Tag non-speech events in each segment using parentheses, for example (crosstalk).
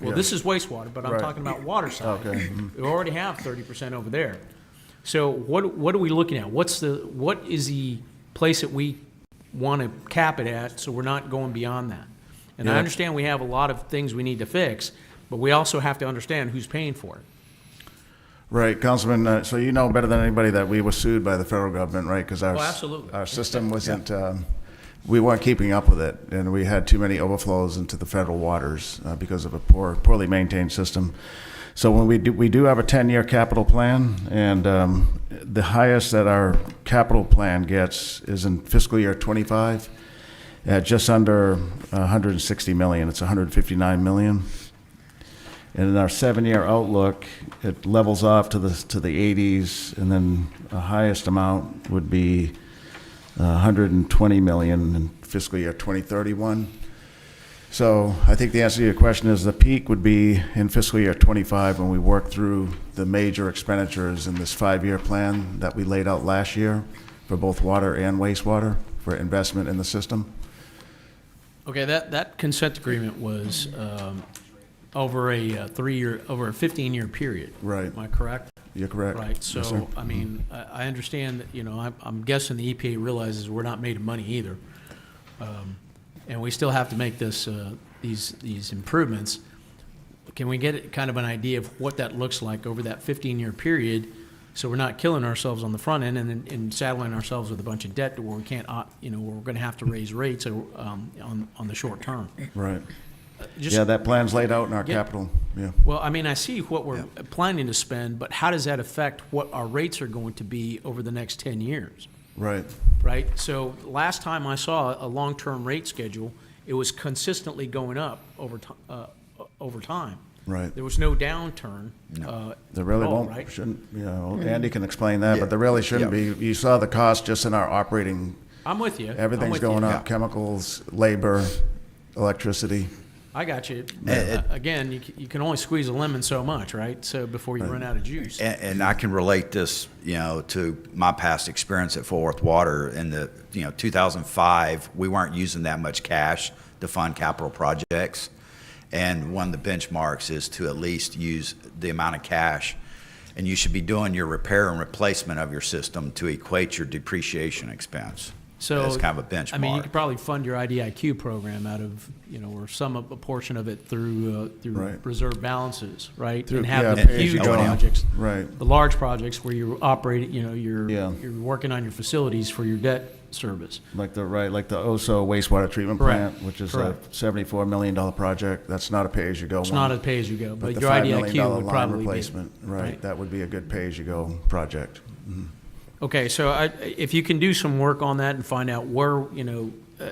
Well, this is wastewater, but I'm Right. Oh. talking about water side. Okay. We already have thirty percent over there. So what, what are we looking at? What's the, what is the place that we want to cap it at, so we're not going beyond that? And I Yeah. understand we have a lot of things we need to fix, but we also have to understand who's paying for it. (laughs) Right, Councilman, uh, so you know better than anybody that we were sued by the federal government, right? Because our, Oh, s- absolutely. our system wasn't, um, we weren't keeping up with it, and we had too many overflows into the federal waters uh, because of a poor, poorly maintained system. So when we do, we do have a 10-year capital plan, and um, the highest that our capital plan gets is in fiscal year '25, at just under 160 million. It's 159 million. And in our seven-year outlook, it levels off to the, to the 80s, and then the highest amount would be uh, 120 million in fiscal year 2031. So I think the answer to your question is the peak would be in fiscal year '25 when we work through the major expenditures in this five-year plan that we laid out last year for both water and wastewater for investment in the system. Okay, that, that consent agreement was um, over a uh, three-year, over a 15-year period. Right. Am I correct? You're correct. Right, Yes, sir. so, I mean, I, I understand that, you know, I'm, I'm guessing the EPA realizes we're not made of money either. Um, And we still have to make this, uh, these, these improvements. Can we get kind of an idea of what that looks like over that fifteen-year period? So we're not killing ourselves on the front end and, then- and saddling ourselves with a bunch of debt to where we can't, op- you know, where we're gonna have to raise rates, uh, um, on, on the short term. Right. Just- Yeah, that plan's laid out in our Yeah. capital, yeah. well, I mean, I see what we're planning to spend, but how does that affect what our rates are going to be over the next 10 years, Right, right? So last time I saw a long-term rate schedule, it was consistently going up over, ti- uh, over time. right. There was no downturn. uh, There really at all, won't, right? shouldn't, you know, Andy can explain that, Mm-hmm. Yeah. but there really shouldn't be. Yeah. You saw the cost just in our operating, I'm with you. I'm everything's with you. going up, Yeah. chemicals, labor, electricity. I got you. Yeah. Uh, Again, you c- you can only squeeze a lemon so much, right? So before you run out of juice. And, and I can relate this, you know, to my past experience at Fort Worth Water. In the, you know, 2005, we weren't using that much cash to fund capital projects. And one of the benchmarks is to at least use the amount of cash. And you should be doing your repair and replacement of your system to equate your depreciation expense. So That's kind of a benchmark. I mean, you could probably fund your IDIQ program out of, you know, or some of a portion of it through, uh, through Right. reserve balances, right? And yeah, have the pay as you huge go. projects, Right, the large projects where you're operating, you know, you're, Yeah. you're working on your facilities for your debt service. like the, right, like the Oso wastewater treatment Correct, plant, which is a correct. seventy-four million dollar project. That's not a pay-as-you-go one. It's not a pay-as-you-go, But but the your five million IDIQ dollar would line probably be. replacement, right, that would be a good pay-as-you-go project. Okay, so I, if you can do some work on that and find out where, you know, uh,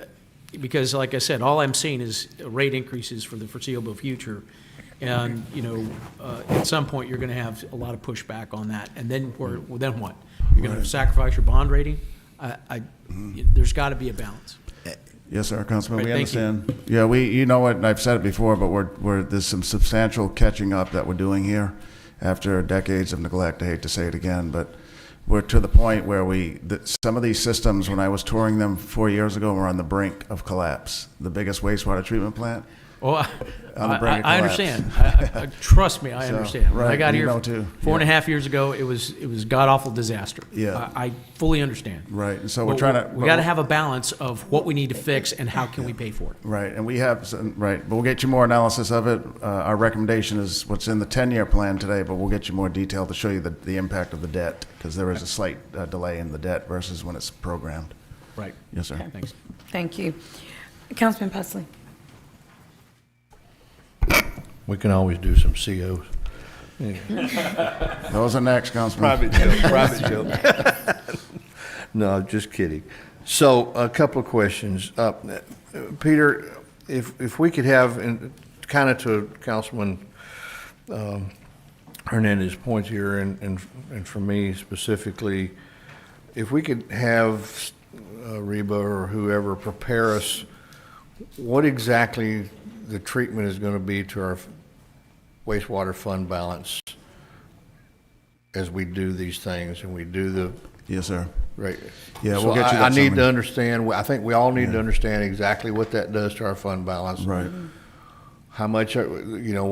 because like I said, all I'm seeing is rate increases for the foreseeable future. And, you know, uh, at some point, you're gonna have a lot of pushback on that, and then where, well, then what? You're gonna sacrifice your bond rating? I, I, Mm-hmm. there's gotta be a balance. Yes, sir, Councilman, Right, we thank you. understand. Yeah, we, you know what, and I've said it before, but we're, we're, there's some substantial catching up that we're doing here after decades of neglect. I hate to say it again, but we're to the point where we, that some of these systems, when I was touring them four years ago, were on the brink of collapse. The biggest wastewater treatment plant. Well, I, On the brink I, of I collapse. understand. I, I, I- trust me, I So, understand. When I right, got you here know too. four and a half years ago, it was it was god awful disaster. Yeah. I, I fully understand. Right, and so we're But trying to- We got to have a balance of what we need to fix and how can we pay for it. Right, and we have, some- right, but we'll get you more analysis of it. Uh, our recommendation is what's in the ten-year plan today, but we'll get you more detail to show you the, the impact of the debt, because there is a slight uh, delay in the debt versus when it's programmed. Right. Yes, sir. Thanks. Thank you. Councilman Pusley. We can always do some COs. Those are next, Councilman. (laughs) Private joke, private joke. (laughs) No, I'm just kidding. So a couple of questions. Uh, Peter, if, if we could have, and kind of to Councilman um, Hernandez's point here, and, and and for me specifically, if we could have uh, Reba or whoever prepare us what exactly the treatment is going to be to our wastewater fund balance as we do these things and we do the, Yes, sir. right? Yeah, we'll So get you I- I that need to summary. understand, I think we all need to understand exactly what that does to our fund balance. Right. How much, uh, you know,